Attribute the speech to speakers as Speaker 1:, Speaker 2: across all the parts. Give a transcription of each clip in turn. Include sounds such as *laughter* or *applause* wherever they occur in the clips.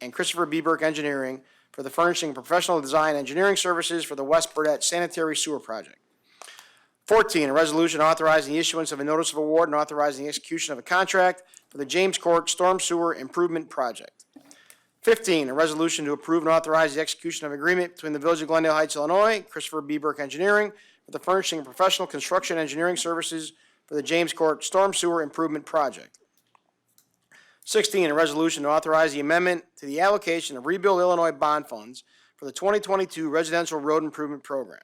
Speaker 1: and Christopher B. Burke Engineering for the furnishing of professional design engineering services for the West Burdette Sanitary Sewer Project. Fourteen, a resolution authorizing the issuance of a notice of award and authorizing the execution of a contract for the James Court Storm Sewer Improvement Project. Fifteen, a resolution to approve and authorize the execution of an agreement between the Village of Glendale Heights, Illinois, and Christopher B. Burke Engineering for the furnishing of professional construction engineering services for the James Court Storm Sewer Improvement Project. Sixteen, a resolution to authorize the amendment to the allocation of rebuild Illinois bond funds for the twenty twenty-two residential road improvement program.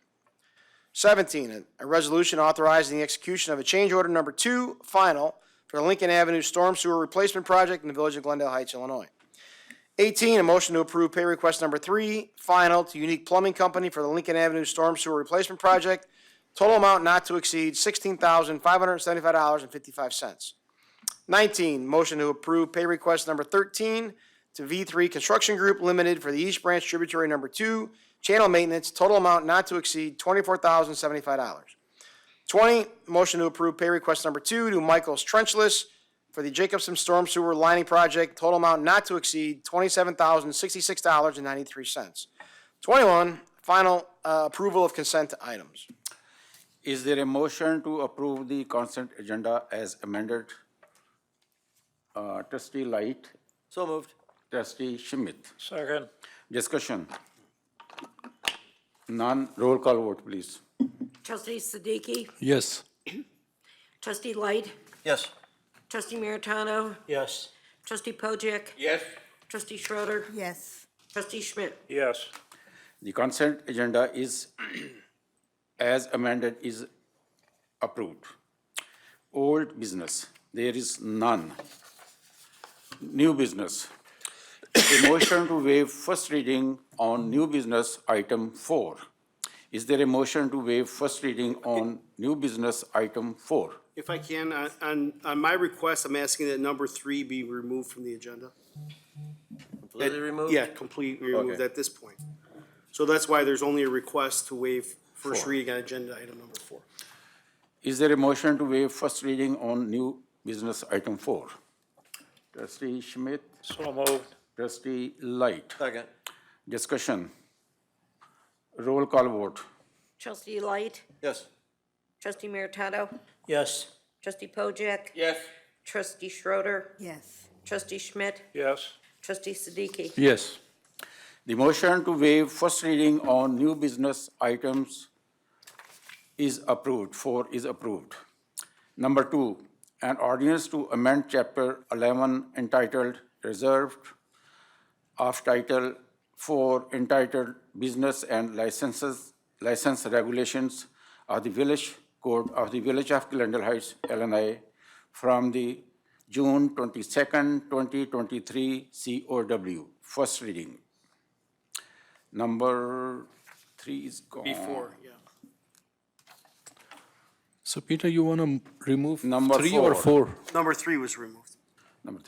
Speaker 1: Seventeen, a- a resolution authorizing the execution of a change order number two, final, for the Lincoln Avenue Storm Sewer Replacement Project in the Village of Glendale Heights, Illinois. Eighteen, a motion to approve pay request number three, final, to Unique Plumbing Company for the Lincoln Avenue Storm Sewer Replacement Project, total amount not to exceed sixteen thousand five hundred and seventy-five dollars and fifty-five cents. Nineteen, motion to approve pay request number thirteen to V three Construction Group Limited for the East Branch Tributary Number Two, channel maintenance, total amount not to exceed twenty-four thousand seventy-five dollars. Twenty, motion to approve pay request number two to Michael's Trenchless for the Jacobson Storm Sewer Lining Project, total amount not to exceed twenty-seven thousand sixty-six dollars and ninety-three cents. Twenty-one, final, uh, approval of consent items.
Speaker 2: Is there a motion to approve the consent agenda as amended? Uh, Trustee Light,
Speaker 3: So moved.
Speaker 2: trustee Schmidt,
Speaker 3: Second.
Speaker 2: discussion. None, roll call vote, please.
Speaker 4: Trustee Siddiqui?
Speaker 5: Yes.
Speaker 4: *clears throat* Trustee Light?
Speaker 3: Yes.
Speaker 4: Trustee Meritano?
Speaker 3: Yes.
Speaker 4: Trustee Pojek?
Speaker 2: Yes.
Speaker 4: Trustee Schroeder,
Speaker 6: yes,
Speaker 4: Trustee Schmidt?
Speaker 3: Yes.
Speaker 2: The consent agenda is, *clears throat* as amended, is approved. Old business, there is none. New business. A motion to waive first reading on new business item four. Is there a motion to waive first reading on new business item four?
Speaker 7: If I can, on- on, on my request, I'm asking that number three be removed from the agenda.
Speaker 3: Completely removed?
Speaker 7: Yeah, completely removed
Speaker 2: Okay.
Speaker 7: at this point. So that's why there's only a request to waive first reading on agenda item number four.
Speaker 2: Is there a motion to waive first reading on new business item four? Trustee Schmidt,
Speaker 3: So moved.
Speaker 2: trustee Light.
Speaker 3: Second.
Speaker 2: Discussion. Roll call vote.
Speaker 4: Trustee Light?
Speaker 3: Yes.
Speaker 4: Trustee Meritano?
Speaker 3: Yes.
Speaker 4: Trustee Pojek?
Speaker 3: Yes.
Speaker 4: Trustee Schroeder,
Speaker 6: yes,
Speaker 4: Trustee Schmidt?
Speaker 3: Yes.
Speaker 4: Trustee Siddiqui?
Speaker 5: Yes.
Speaker 2: The motion to waive first reading on new business items is approved, four is approved. Number two, an ordinance to amend Chapter 11 entitled Reserved of Title 4 entitled Business and Licenses, License Regulations of the Village Code of the Village of Glendale Heights, Illinois, from the June 22nd, 2023 COW, first reading. Number three is gone.
Speaker 7: Before, yeah.
Speaker 5: So Peter, you want to remove
Speaker 2: Number
Speaker 5: three or
Speaker 2: four.
Speaker 5: four?
Speaker 7: Number three was removed.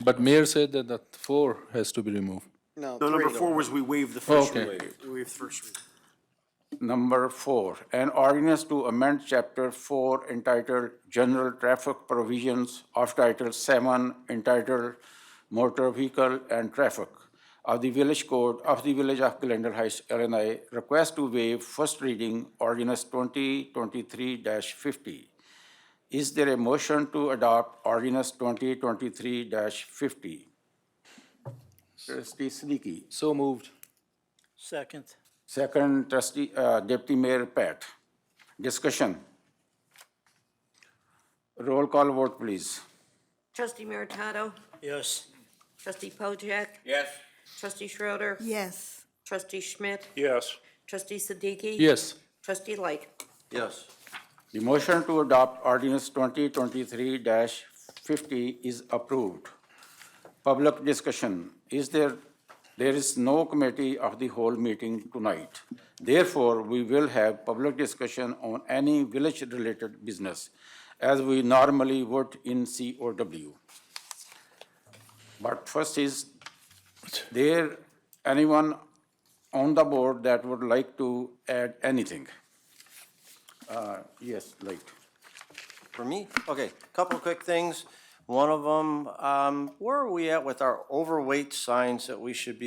Speaker 5: But mayor said that that four has to be removed.
Speaker 1: No,
Speaker 7: No, number
Speaker 1: three.
Speaker 7: four was we waived the first
Speaker 5: Okay.
Speaker 7: reading. We waived first reading.
Speaker 2: Number four, an ordinance to amend Chapter 4 entitled General Traffic Provisions of Title 7 entitled Motor Vehicle and Traffic of the Village Code of the Village of Glendale Heights, Illinois, request to waive first reading ordinance 2023-50. Is there a motion to adopt ordinance 2023-50? Trustee Siddiqui.
Speaker 5: So moved.
Speaker 3: Second.
Speaker 2: Second trustee, uh, deputy mayor Pat. Discussion. Roll call vote, please.
Speaker 4: Trustee Meritano?
Speaker 3: Yes.
Speaker 4: Trustee Pojek?
Speaker 3: Yes.
Speaker 4: Trustee Schroeder,
Speaker 6: yes,
Speaker 4: Trustee Schmidt?
Speaker 3: Yes.
Speaker 4: Trustee Siddiqui?
Speaker 5: Yes.
Speaker 4: Trustee Light?
Speaker 3: Yes.
Speaker 2: The motion to adopt ordinance twenty twenty-three fifty is approved. Public discussion. Is there, there is no committee of the whole meeting tonight. Therefore, we will have public discussion on any village-related business as we normally would in COW. But first is, there anyone on the board that would like to add anything? Uh, Yes, Light.
Speaker 3: For me? Okay, couple quick things. One of them, um, where are we at with our overweight signs that we should be